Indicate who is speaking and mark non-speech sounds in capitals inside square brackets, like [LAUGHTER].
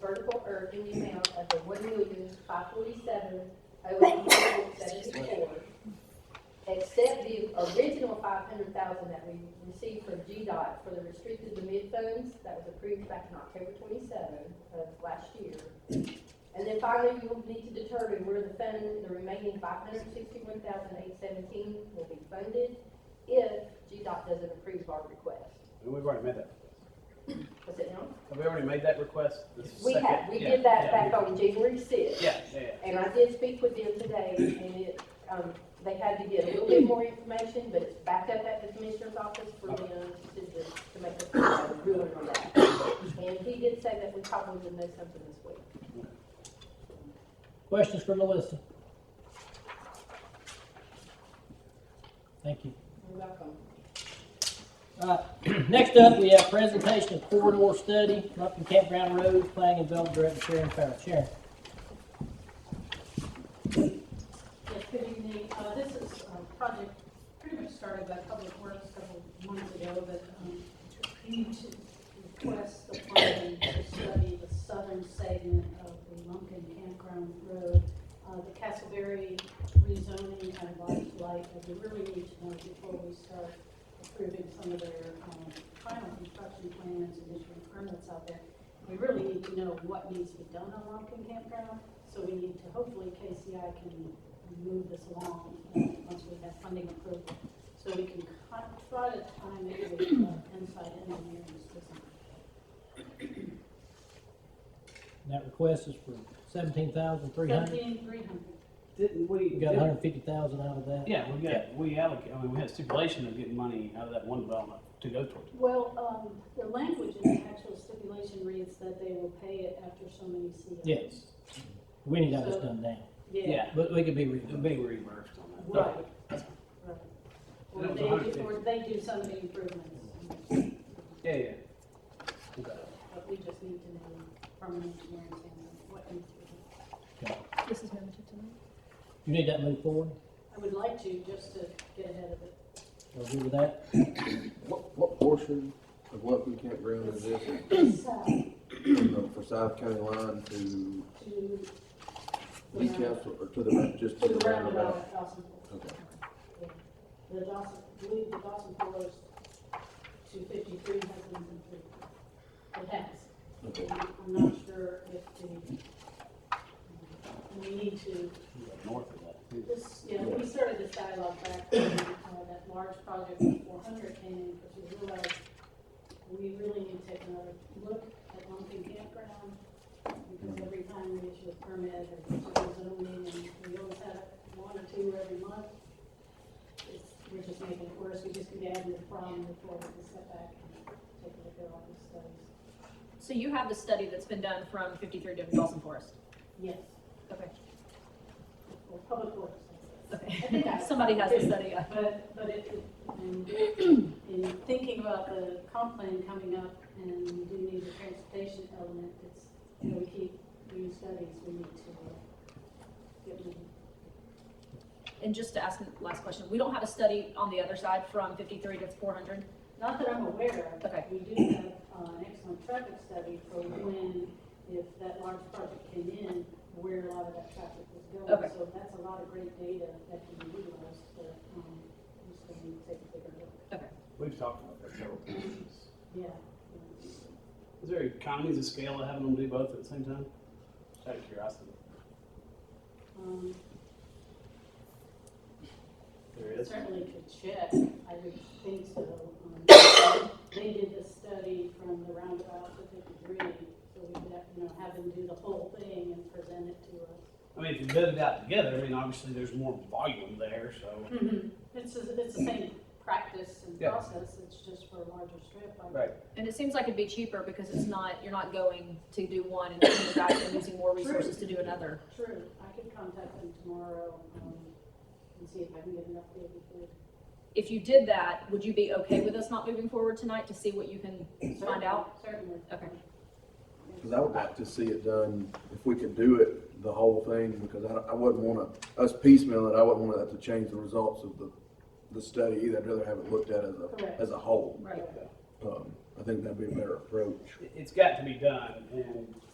Speaker 1: vertical earth in the amount of the one million, five forty-seven, oh, seventy-four, except the original five hundred thousand that we received from GDOT for the restricted to mid funds, that was approved back in October twenty-seven of last year. And then finally, you will need to determine where the fund, the remaining five hundred sixty-one thousand eight seventeen will be funded if GDOT doesn't approve our request.
Speaker 2: We've already made that.
Speaker 1: Was it no?
Speaker 2: Have we already made that request? This is
Speaker 1: We
Speaker 2: second-
Speaker 1: have, we
Speaker 2: yeah,
Speaker 1: did that
Speaker 2: yeah,
Speaker 1: back
Speaker 2: we-
Speaker 1: on January sixth.
Speaker 2: Yeah, yeah, yeah.
Speaker 1: And I did speak with them today, and it, um, they had to get a little bit more information, but it's back up at the commissioner's office for them to, just- to make a ruling on that. And he did say that we probably would know something this week.
Speaker 3: Questions for Melissa? Thank you.
Speaker 1: You're welcome.
Speaker 3: All right, [CLEARS THROAT] next up, we have presentation of corridor study, Rumpkin Campground Road, planning and development director Sharon Farrell. Sharon?
Speaker 4: Yes, good evening. Uh, This is a project pretty much started by Public Works several months ago, but um, we need to request the funding to study the southern segment of the Lumpkin Campground Road. Uh, The Castleberry rezoning and large light, and we really need to know before we start approving some of their um, final construction plans and issuing permits out there. We really need to know what needs to be done on Lumpkin Campground, so we need to, hopefully KCI can move this along, uh, once we have funding approval. So we can con- try to time it with uh, inside engineering system.
Speaker 3: That request is for seventeen thousand three hundred.
Speaker 4: Seventeen, three hundred.
Speaker 2: Didn't we?
Speaker 3: We got a hundred fifty thousand out of that.
Speaker 2: Yeah, we got, we allocate, I mean, we had stipulation of getting money out of that one development to go towards it.
Speaker 4: Well, um, the language in the actual stipulation reads that they will pay it after so many COs.
Speaker 3: Yes. We need all this done now,
Speaker 4: Yeah,
Speaker 2: Yeah,
Speaker 3: but we could be
Speaker 2: it'll
Speaker 3: reviewed.
Speaker 2: be reimbursed on that.
Speaker 4: right, right. Or
Speaker 2: That was
Speaker 4: they, do-
Speaker 2: 150.
Speaker 4: or they do some of the improvements, but
Speaker 2: Yeah, yeah. Okay.
Speaker 4: we just need to know from an engineering standpoint what needs to be done.
Speaker 5: This is limited to me.
Speaker 3: You need that moved forward,
Speaker 4: I would like to, just to get ahead of it.
Speaker 3: or agree with that?
Speaker 6: What, what portion of Lumpkin Campground is this,
Speaker 4: So,
Speaker 6: from the Forsyth County line to
Speaker 4: [COUGHS] to.
Speaker 6: East Castle, or to the, just to the roundabout?
Speaker 4: at Dawson Fork.
Speaker 6: Okay.
Speaker 4: Yeah. The Dawson, I believe the Dawson Forest two fifty-three has been completed. It has.
Speaker 6: Okay.
Speaker 4: I'm not sure if the, we need to,
Speaker 2: We got North of that. too.
Speaker 4: this, you know, we started this dialogue back when, uh, that large project of four hundred came in, because we realized we really need to take another look at Lumpkin Campground, because every time we issue a permit or issue a zoning, and we always have one or two every month, it's, we're just making it worse, we just need to add to the problem before we can step back and take a look at all these studies.
Speaker 5: So you have the study that's been done from fifty-three
Speaker 4: [LAUGHS]
Speaker 5: to Dawson Forest?
Speaker 4: Yes,
Speaker 5: Okay,
Speaker 4: or public works. I guess. I
Speaker 5: [LAUGHS]
Speaker 4: think
Speaker 5: okay.
Speaker 4: I-
Speaker 5: Somebody has the study, uh,
Speaker 4: But, but it, in, in thinking about the comp plan coming up and we do need a transportation element, it's, you know, we keep new studies, we need to uh, get moving.
Speaker 5: and just to ask the last question, we don't have a study on the other side from fifty-three to four hundred?
Speaker 4: Not that I'm aware of,
Speaker 5: Okay.
Speaker 4: but we do have uh, an excellent traffic study for when, if that large project came in, where a lot of that traffic was going.
Speaker 5: Okay.
Speaker 4: So that's a lot of great data that can be utilized, but, um, we still need to take a bigger look.
Speaker 2: We've talked about that several times.
Speaker 4: Yeah.
Speaker 2: Is there economies of scale of having them do both at the same time? Just Out of curiosity.
Speaker 4: Um,
Speaker 2: There is.
Speaker 4: Certainly could check, I would think so. Um, They did the study from the roundabout to fifty-three, so we could, have, you know, have them do the whole thing and present it to us.
Speaker 2: I mean, if you bid it out together, I mean, obviously there's more volume there, so.
Speaker 4: It's, the- it's the same practice and
Speaker 2: Mm-hmm. Yeah.
Speaker 4: process, it's just for a larger strip. I-
Speaker 2: Right.
Speaker 5: And it seems like it'd be cheaper because it's not, you're not going to do one and then coming back and using more resources to do another.
Speaker 4: True, I could contact them tomorrow, um, and see if I can get an update before.
Speaker 5: If you did that, would you be okay with us not moving forward tonight to see what you can find out?
Speaker 4: Certainly.
Speaker 5: Okay.
Speaker 6: Cause I would like to see it done, if we could do it, the whole thing, because I, don't- I wouldn't wanna, us piecemeal it, I wouldn't want that to change the results of the, the study either, I'd rather have it looked at as
Speaker 4: Correct.
Speaker 6: a, as a whole.
Speaker 4: Right.
Speaker 6: Um, I think that'd be a better approach.
Speaker 2: It- It's got to be done, and